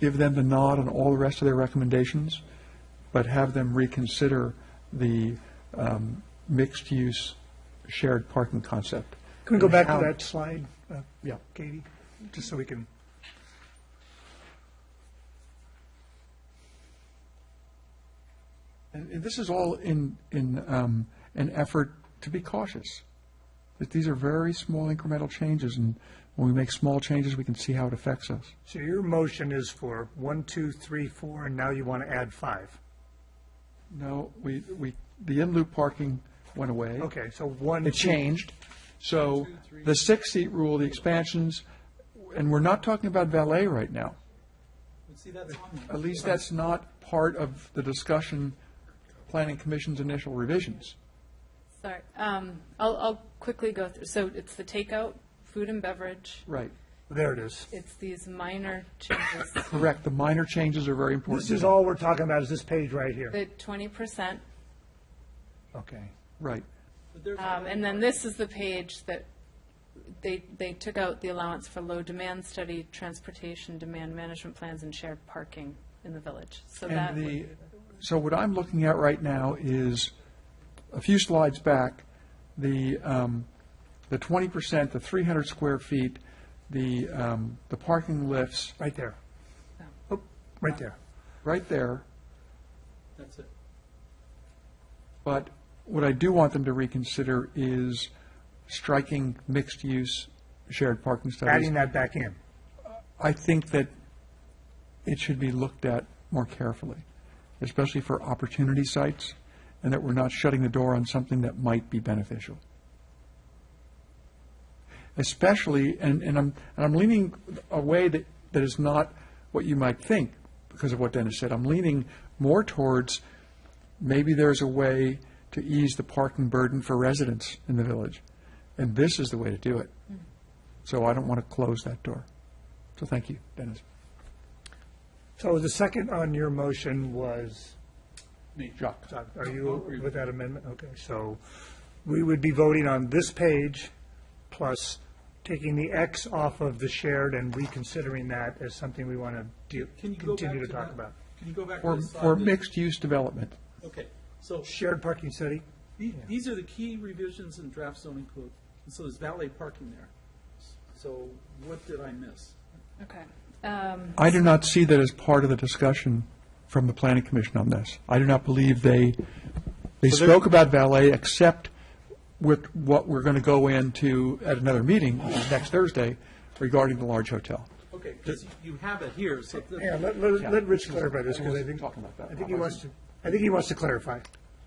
give them the nod on all the rest of their recommendations, but have them reconsider the um, mixed-use shared parking concept. Can we go back to How- that slide, uh, Yeah. Katie, just so we can, And and this is all in, in um, an effort to be cautious. That these are very small incremental changes, and when we make small changes, we can see how it affects us. so your motion is for one, two, three, four, and now you want to add five. No, we, we, the in-loop parking went away. Okay, so one. It two- changed. So the six-seat rule, the expansions, and we're not talking about valet right now. But see, that's on there. At least that's not part of the discussion, Planning Commission's initial revisions. Sorry, um, I'll, I'll quickly go through, so it's the takeout, food and beverage, Right. There it is. it's these minor changes, Correct. The minor changes are very important. This is all we're talking about is this page right here. the twenty percent, Okay. Right. But there's um, and then this is the page that they, they took out the allowance for low demand study, transportation demand management plans, and shared parking in the village, so that, And the, so what I'm looking at right now is, a few slides back, the, um, the twenty percent, the three hundred square feet, the, um, the parking lifts, Right there. Oh, Right there. right there. That's it. But what I do want them to reconsider is striking mixed-use shared parking studies. Adding that back in. I think that it should be looked at more carefully, especially for opportunity sites, and that we're not shutting the door on something that might be beneficial. Especially, and, and I'm, and I'm leaning a way that, that is not what you might think because of what Dennis said. I'm leaning more towards maybe there's a way to ease the parking burden for residents in the village, and this is the way to do it. So I don't want to close that door. So thank you, Dennis. So the second on your motion was, Me. Jacques. so are you with that amendment? Okay, so we would be voting on this page plus taking the X off of the shared and reconsidering that as something we want to Can you go back continue to talk that? about. Can you go back to For, the for slide? that- mixed-use development. Okay, so Shared parking study? the- these are the key revisions in draft zoning code. And so there's valet parking there. So what did I miss? okay. Um, I do not see that as part of the discussion from the planning commission on this. I do not believe they, they spoke about valet except with what we're going to go into at another meeting, which is next Thursday, regarding the large hotel. Okay, because you have it here, so. the- Yeah, let, let, let Rich clarify this, because I wasn't think, talking about that. I think he wants to, I think he wants to clarify.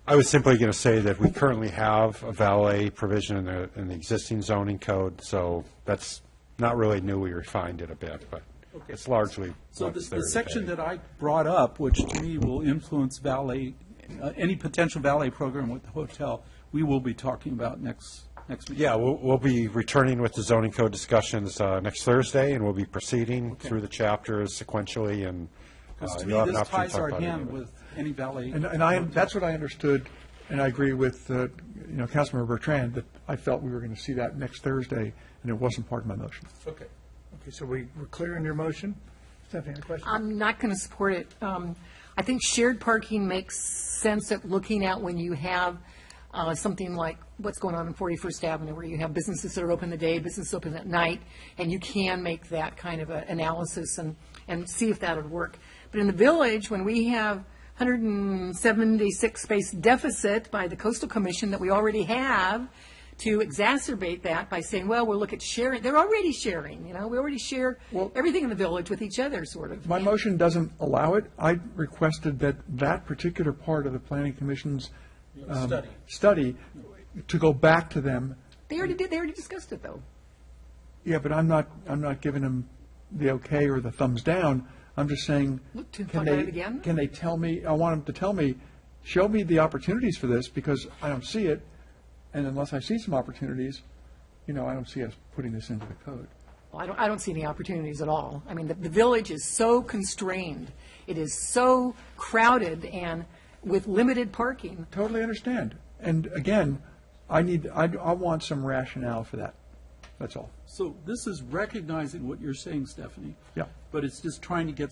I was simply going to say that we currently have a valet provision in the, in the existing zoning code, so that's not really new, we refined it a bit, but Okay. it's largely So what's the, there the section today. that I brought up, which to me will influence valet, uh, any potential valet program with the hotel, we will be talking about next, next meeting. Yeah, we'll, we'll be returning with the zoning code discussions uh, next Thursday, and we'll be proceeding through the chapters sequentially, and uh, Because to me, you'll have an this ties opportunity to talk our about it. hand with any valet. And, and I, that's what I understood, and I agree with, uh, you know, Councilmember Bertrand, that I felt we were going to see that next Thursday, and it wasn't part of my motion. Okay. Okay, so we, we're clear in your motion? Stephanie, any questions? I'm not going to support it. Um, I think shared parking makes sense at looking at when you have uh, something like what's going on in 41st Avenue, where you have businesses that are open the day, businesses open at night, and you can make that kind of a analysis and, and see if that would work. But in the village, when we have 176 space deficit by the coastal commission that we already have, to exacerbate that by saying, well, we'll look at sharing, they're already sharing, you know, we already share everything in the village with each other, sort of. My motion doesn't allow it. I requested that that particular part of the planning commission's. um, Study. Study, to go back to them. They already did, they already discussed it, though. Yeah, but I'm not, I'm not giving them the okay or the thumbs down. I'm just saying. Look to can find out they- again? Can they tell me, I want them to tell me, show me the opportunities for this because I don't see it. And unless I see some opportunities, you know, I don't see us putting this into the code. Well, I don't, I don't see any opportunities at all. I mean, the, the village is so constrained, it is so crowded and with limited parking. Totally understand. And again, I need, I, I want some rationale for that. That's all. So this is recognizing what you're saying, Stephanie. Yeah. But it's just trying to get